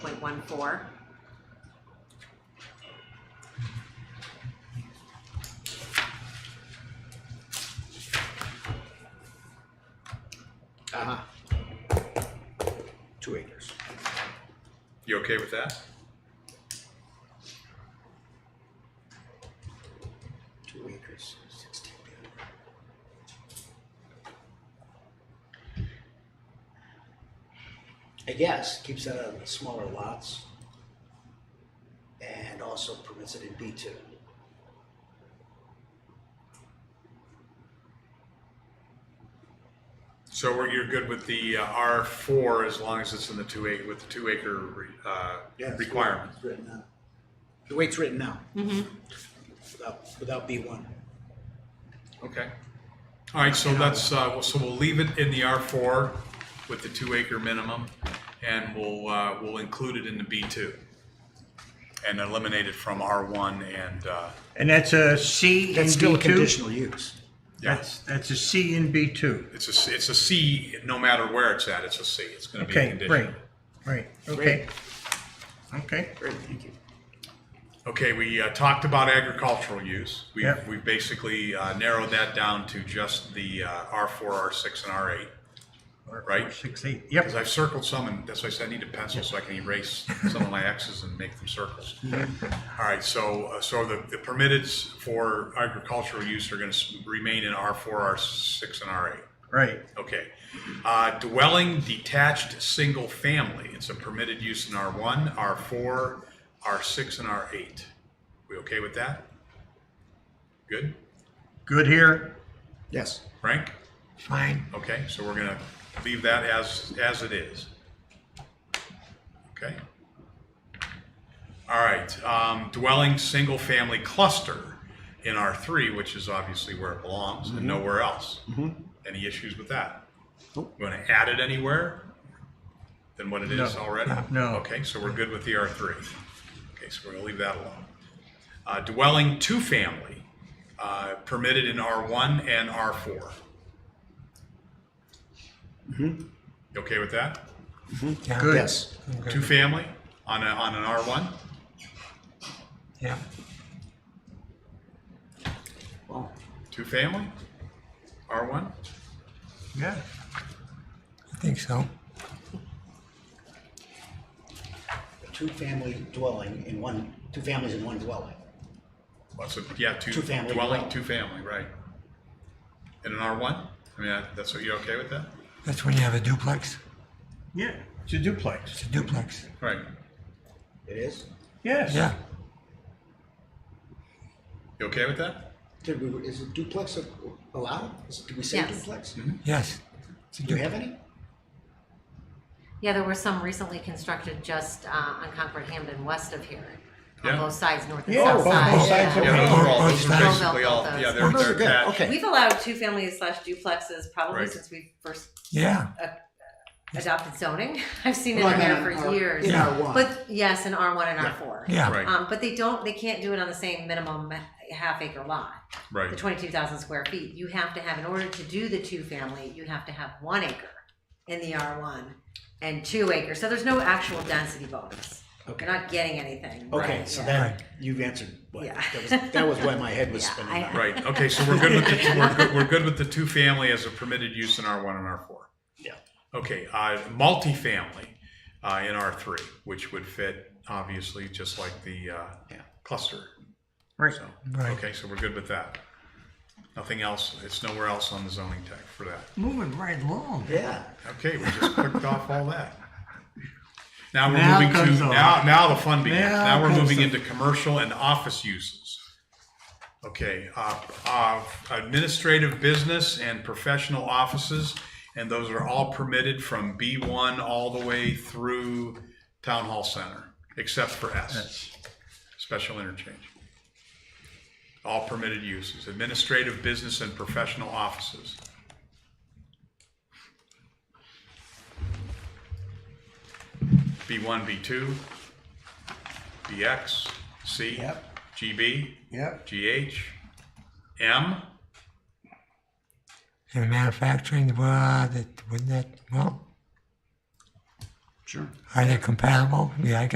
one four. Uh-huh. Two acres. You okay with that? Two acres. Sixteen. I guess keeps that out of the smaller lots. And also permits it in B two. So we're, you're good with the uh, R four as long as it's in the two acre, with the two acre, re- uh, requirement? Written now. The way it's written now, Mm-hmm. without, without B one. Okay. All right, so that's, uh, well, so we'll leave it in the R four with the two acre minimum and we'll, uh, we'll include it in the B two. And eliminate it from R one and, uh, And that's a C in That's still B a two? conditional use. yeah, That's, that's a C in B two. it's a, C- it's a C, no matter where it's at, it's a C. It's gonna be a Okay, great, condition. great, okay. Okay, Great, thank you. Okay, we uh, talked about agricultural use. We, Yep. we basically uh, narrowed that down to just the uh, R4, R6, and R8. Or- Right. or Six, eight, Because yep, I've circled some, and that's why I said I need a pencil so I can erase some of my X's and make them circles. All right, so, uh, so the the permitteds for agricultural use are going to remain in R4, R6, and R8. right, Okay. Uh, dwelling detached single family. It's a permitted use in R1, R4, R6, and R8. We okay with that? Good. good here, Yes. Frank? fine, Okay, so we're gonna leave that as, as it is. Okay? All right, um, dwelling, single-family cluster in R three, which is obviously where it belongs Mm-hmm. and nowhere else. Any issues with that? You Nope. wanna add it anywhere than what it is No. already? No. Okay, so we're good with the R three. Okay, so we're gonna leave that alone. Uh, dwelling, two-family, uh, permitted in R one and R four. Mm-hmm. You okay with that? good. Yes. Two family on a, on an R one? Yeah, Well, Two family? R one? Yeah, I think so. two-family dwelling in one, two families in one dwelling. What's a, yeah, two. Two family Dwelling, dwelling. two family, right. In an R one? I mean, that- that's what, you okay with that? That's when you have a duplex. yeah, it's a duplex, It's a duplex. Right. It is? yes. Yeah, You okay with that? Did we, is a duplex a- allowed? Is- Did we say Yes. duplex? Mm-hmm. yes. It's a Do we du- have any? Yeah, there were some recently constructed just uh, on Concord Hamden west of here, on Yeah. both sides, north and Yeah, south both- side. both sides yeah. of- Yeah, those are all, Both those are sides. basically all, yeah, they're, Those are they're good, attached. okay. We've allowed two families slash duplexes probably Right. since we first Yeah, adopted zoning. I've seen Well, it I in mean, there in for our- years. In our one. But yes, in R one and R four. yeah. Right, Um, but they don't, they can't do it on the same minimum half acre lot, the right. twenty-two thousand square feet. You have to have, in order to do the two family, you have to have one acre in the R one and two acres. So there's no actual density bonus. Okay. You're not getting anything. Okay, Right, so yeah. that, you've answered, what- Yeah. that was, that was why my head was Yeah, spinning. I- back. Right, okay, so we're good with the, we're good, we're good with the two family as a permitted use in R one and R four. Yeah. Okay, uh, multifamily, uh, in R three, which would fit obviously just like the, uh, Yeah. cluster. Right. So, Right. okay, so we're good with that. Nothing else, it's nowhere else on the zoning tag for that. Moving right along. Yeah. Okay, we just clicked off all that. Now we're Now moving comes to, the- now, now the fun begins. Now Now we're comes moving the- into commercial and office uses. Okay, uh, uh, administrative business and professional offices, and those are all permitted from B1 all the way through Town Hall Center, except for S, special interchange. All permitted uses, administrative business and professional offices. B1, B2, BX, C, Yep. GB, Yep, GH, M, And manufacturing, uh, well, that, wouldn't that, well, Sure. are they compatible? Yeah, I